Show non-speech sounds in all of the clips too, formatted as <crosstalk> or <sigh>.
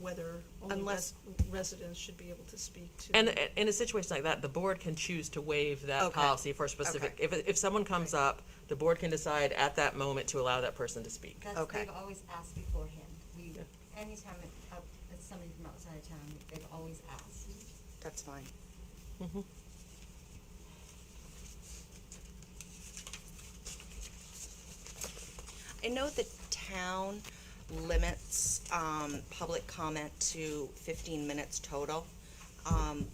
whether only Unless- res- residents should be able to speak to. And and in a situation like that, the board can choose to waive that Okay. policy for a specific, if, if someone comes up, the board can decide at that moment to allow that person to speak. That's, Okay. they've always asked beforehand. We, anytime it- out- it's somebody from outside of town, they've always asked. That's fine. I know the town limits, um, public comment to fifteen minutes total. Um,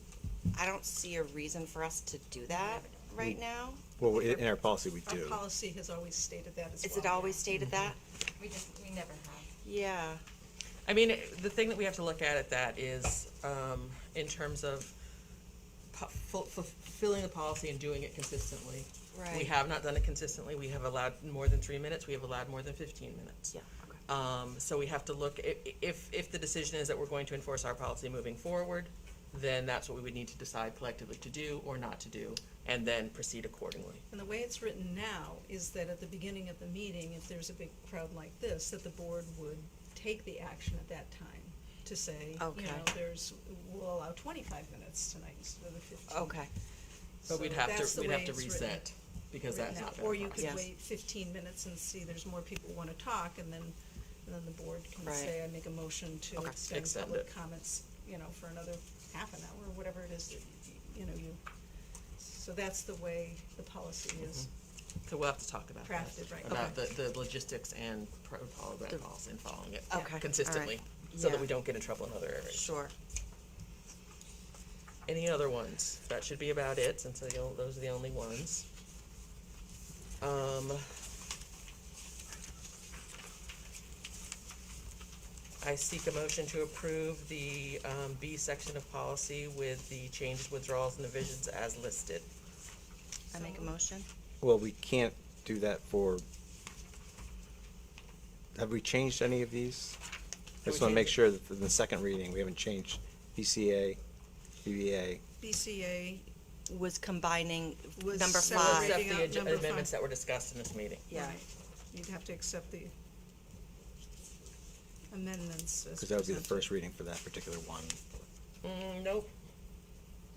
I don't see a reason for us to do that right now. Well, in, in our policy, we Our do. policy has always stated that as well. Is it always stated that? We just, we never have. Yeah, I mean, the thing that we have to look at at that is, um, in terms of pu- fu- fu- fulfilling the policy and doing it consistently. We Right. have not done it consistently. We have allowed more than three minutes. We have allowed more than fifteen minutes. yeah, Um, so we have to look, i- i- if, if the decision is that we're going to enforce our policy moving forward, then that's what we would need to decide collectively to do or not to do, and then proceed accordingly. And the way it's written now is that at the beginning of the meeting, if there's a big crowd like this, that the board would take the action at that time to say, you Okay. know, there's, we'll allow twenty-five minutes tonight instead of the fifteen. okay, But we'd So have that's to, the we'd way have to it's written- reset, because written that's out. not fair. Or you could Yes. wait fifteen minutes and see there's more people wanna talk, and then, and then the board can Right. say, I make a motion to Okay. extend Extend public it. comments, you know, for another half an hour, or whatever it is that, y- you know, you. So that's the way the policy is. So we'll have to talk about that. Crafted, right, About the, the logistics and protocol of that policy and following it. Okay, all right. Consistently, so that Yeah. we don't get in trouble in other areas. sure. Any other ones? That should be about it, since they don't- those are the only ones. Um. I seek a motion to approve the, um, B section of policy with the changes, withdrawals, and divisions as listed. I make a motion? Well, we can't do that for, have we changed any of these? I we just want to make changed- sure that in the second reading, we haven't changed BCA, BBA. BCA Was combining Was number separating five, Except the out ad- number amendments five. that were discussed in this meeting. Yeah. Right. You'd have to accept the amendments as Because that would be the presented. first reading for that particular one, Mm, nope,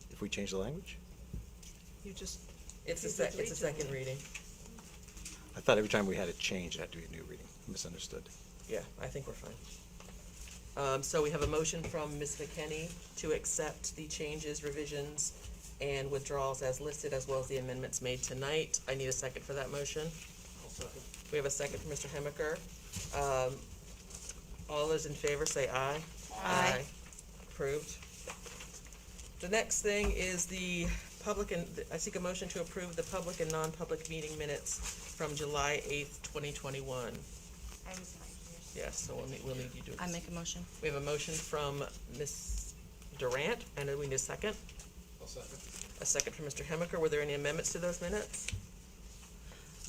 if we change the language. You just, it's a You sec, just it's a read to second them. reading. I thought every time we had a change, it had to be a new reading. Misunderstood. Yeah, I think we're fine. Um, so we have a motion from Ms. McKenney to accept the changes, revisions, and withdrawals as listed, as well as the amendments made tonight. I need a second for that motion. We have a second from Mr. Hemaker. Um, all those in favor say aye. Aye. Approved. The next thing is the public and, I seek a motion to approve the public and non-public meeting minutes from July eighth, twenty twenty-one. I was not here. Yes, so we'll need, we'll need you to. I make a motion? We have a motion from Ms. Durant, and we need a 2nd second. A second from Mr. Hemaker. Were there any amendments to those minutes?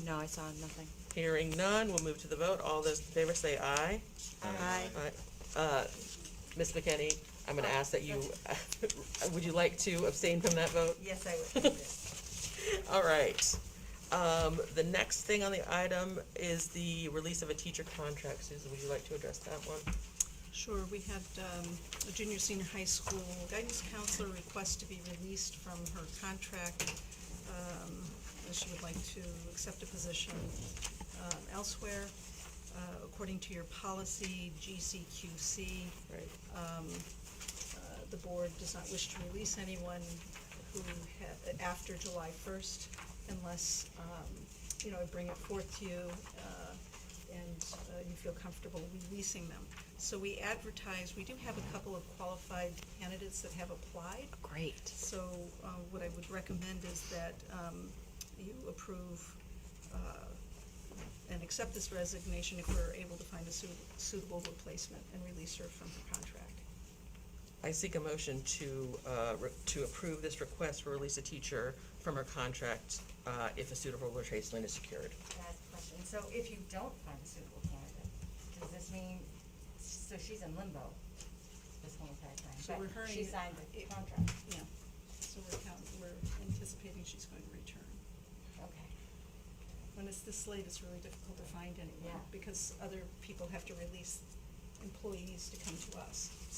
No, I saw nothing. Hearing none, we'll move to the vote. All those in favor say aye. Aye. Aye. Uh, Ms. McKenny, I'm gonna ask that you, <laughs> would you like to abstain from that vote? Yes, I would. do this. <laughs> All right. Um, the next thing on the item is the release of a teacher contract. Susan, would you like to address that one? sure, we had um, a junior senior high school guidance counselor request to be released from her contract. um, that She would like to accept a position um, elsewhere. Uh, According to your policy, GCQC, Right. uh, the board does not wish to release anyone who had, after July first, unless, um, you know, I bring it forth to you, uh, and uh, you feel comfortable releasing them. So we advertise, we do have a couple of qualified candidates that have applied, Oh, Great. so uh, what I would recommend is that um, you approve uh, and accept this resignation if we're able to find a su- suitable replacement and release her from her contract. I seek a motion to, uh, re- to approve this request for release a teacher from her contract uh, if a suitable replacement is secured. That's a question. So if you don't find a suitable candidate, does this mean, so she's in limbo this whole entire time? So but we're hurrying She it- signed the it- contract. Yeah, so we're count, we're anticipating she's going to return. Okay. When it's this late, it's really difficult to find anyone, Yeah. because other people have to release employees to come to us.